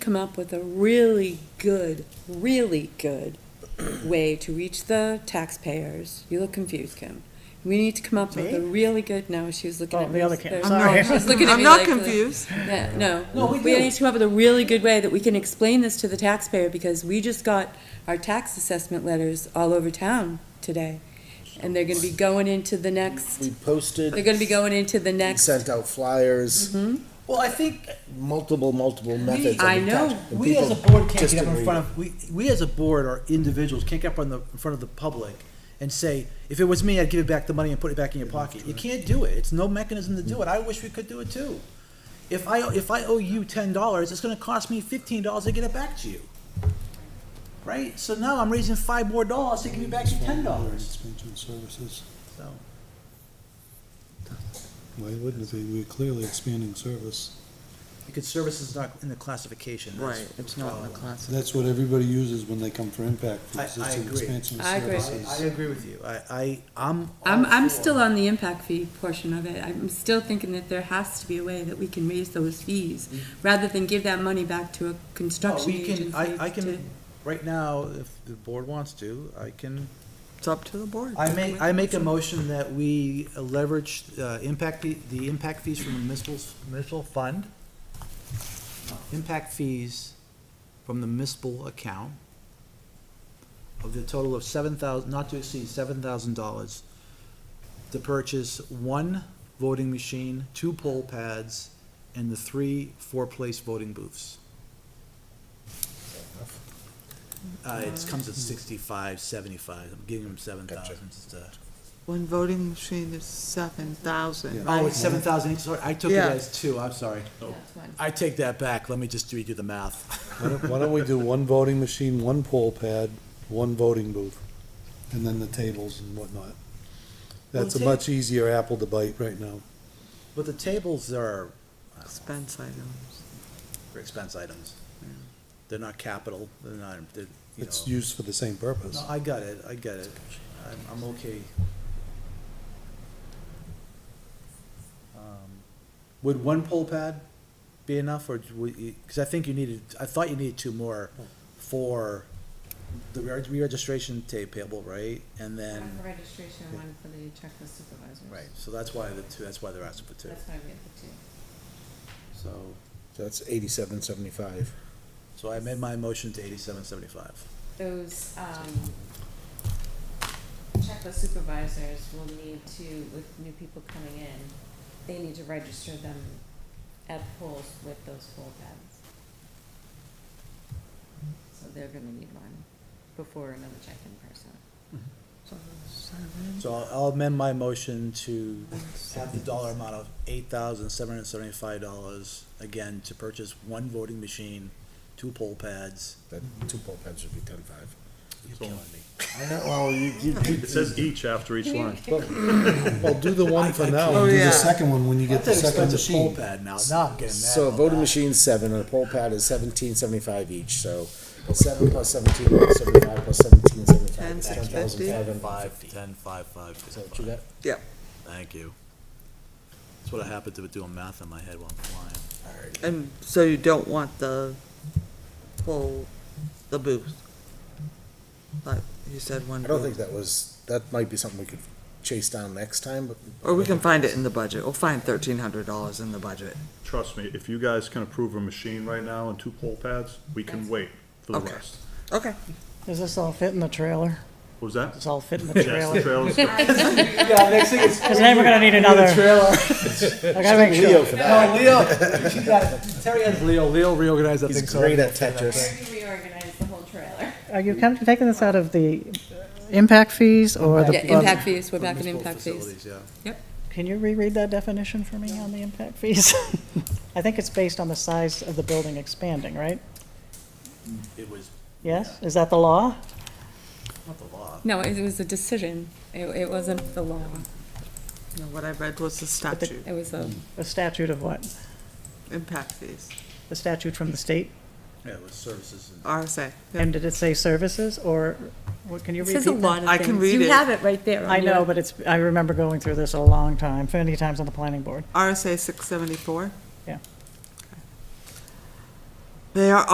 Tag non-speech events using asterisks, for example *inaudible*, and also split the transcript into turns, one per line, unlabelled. come up with a really good, really good way to reach the taxpayers. You look confused, Kim. We need to come up with a really good, no, she was looking
Oh,
at me.
the other
like-
Kim,
no,
sorry.
she was looking at
I'm
me
not
like- uh, like-
confused.
Yeah, no.
No, we do.
need to come up with a really good way that we can explain this to the taxpayer, because we just got our tax assessment letters all over town today. And they're gonna be going into the next,
We posted.
they're gonna be going into the
we
next,
Sent out flyers,
Mm-hmm. Well, I think
multiple, multiple methods.
I
of
know.
attachment, and
we as a
people
board can't
just
get up
didn't
in
read
front of, we, we as a board or individuals can't get up on the, in front of the public and say, if it was me, I'd give it back the money and put it back in your pocket. You can't do it. It's no mechanism to do it. I wish we could do it too. If I, if I owe you ten dollars, it's gonna cost me fifteen dollars to get it back to you. Right? So now I'm raising five more dollars to give you back your ten dollars,
Expansion services,
so.
why wouldn't it be? We're clearly expanding service.
Because service is not in the classification. that's
Right,
the
it's not in the
problem.
class.
That's what everybody uses when they come for impact, for
I- I
existing
agree.
expansion of
I agree.
services.
I, I agree with you. I, I, I'm.
I'm,
all
I'm
for-
still on the impact fee portion of it. I'm still thinking that there has to be a way that we can raise those fees, rather than give that money back to a
No,
construction
Oh, we
agency
can, I, I
to-
can, right now, if the board wants to, I can,
It's up to the board.
I make, I make a motion that we leverage, uh, impact, fee- the impact fees from the municipal, municipal fund. uh, Impact fees from the municipal account of the total of seven thousand, not to exceed seven thousand dollars to purchase one voting machine, two poll pads, and the three four-place voting booths. Uh, it comes at sixty-five, seventy-five, I'm giving them seven thousand, it's, uh,
One voting machine is seven thousand.
oh, it's seven thousand, sorry, I took it
Yeah.
as two, I'm sorry. I take that back, let me just redo the math.
Why don't- Why don't we do one voting machine, one poll pad, one voting booth, and then the tables and whatnot? That's a
Well, ta-
much easier apple to bite right now.
*laughs* But the tables are
Expense items.
for expense items, they're not capital, they're not, they're, you
It's
know.
used for the same purpose.
No, I got it, I got it, I'm, I'm okay. Um, Would one poll pad be enough, or would you, because I think you needed, I thought you needed two more for the re- re-registration tape table, right? And
One
then,
for registration, and one for the checklist supervisors.
right, so that's why the two, that's why they're asking for two,
That's why we have the two.
so,
That's eighty-seven seventy-five.
so I made my motion to eighty-seven seventy-five.
Those, um, checklist supervisors will need to, with new people coming in, they need to register them at polls with those poll pads. So they're gonna need one before another check-in person.
So seven,
So I'll- I'll amend my motion to have the dollar amount of eight thousand seven hundred seventy-five dollars, again, to purchase one voting machine, two poll pads.
That two poll pads would be ten-five.
You're killing me.
Well, you, you, *laughs*
It says each
*laughs*
after each line.
Well, do the one for now,
Oh,
and do
yeah.
the second one when you get
That's
the
an
second
expensive poll
machine.
pad now, now I'm getting mad.
So a
about
voting
that.
machine's seven, and a poll pad is seventeen seventy-five each, so seven plus seventeen, plus seventy-five, plus seventeen, seventy-five,
Ten,
is
six,
ten thousand
fifty.
five hundred and
Five,
fifty.
ten, five, five,
Is that what you
fifty-five.
got?
yeah.
Thank you. That's what I happen to be doing math in my head while I'm flying.
And so you don't want the whole, the booth? Like you said, one
I don't think
booth.
that was, that might be something we could chase down next time, but.
Or we can find it in the budget. We'll find thirteen hundred dollars in the budget.
Trust me, if you guys can approve a machine right now and two poll pads, we can wait for the
Okay.
rest.
Okay.
Does this all fit in the trailer?
What was that?
Does all fit in the
Yes, the
trailer?
trailers.
Yeah, next thing is.
Because then we're gonna need another. *laughs* I gotta make sure.
No, Leo, she got, Terry has Leo, Leo reorganized that
He's great at Tetris.
Where do we organize the whole trailer?
Are you kind of taking this out of the impact fees or
Yeah,
the?
impact fees, we're back in impact fees.
Facilities, yeah.
Can you reread that definition for me on the impact fees? *laughs* I think it's based on the size of the building expanding, right?
It was
Yes? Is that the law?
not the law.
No, it was a decision. It, it wasn't the law.
No, what I read was the statute,
It was a,
The statute of what?
impact fees,
The statute from the state?
Yeah, it was services and.
RSA. yeah.
And did it say services or, what, can you
it
repeat
says a
that?
lot of things.
I can read
You
it.
have it right there.
I know, but it's, I remember going through this a long time, many times on the planning board.
RSA six seventy-four?
Yeah.
They are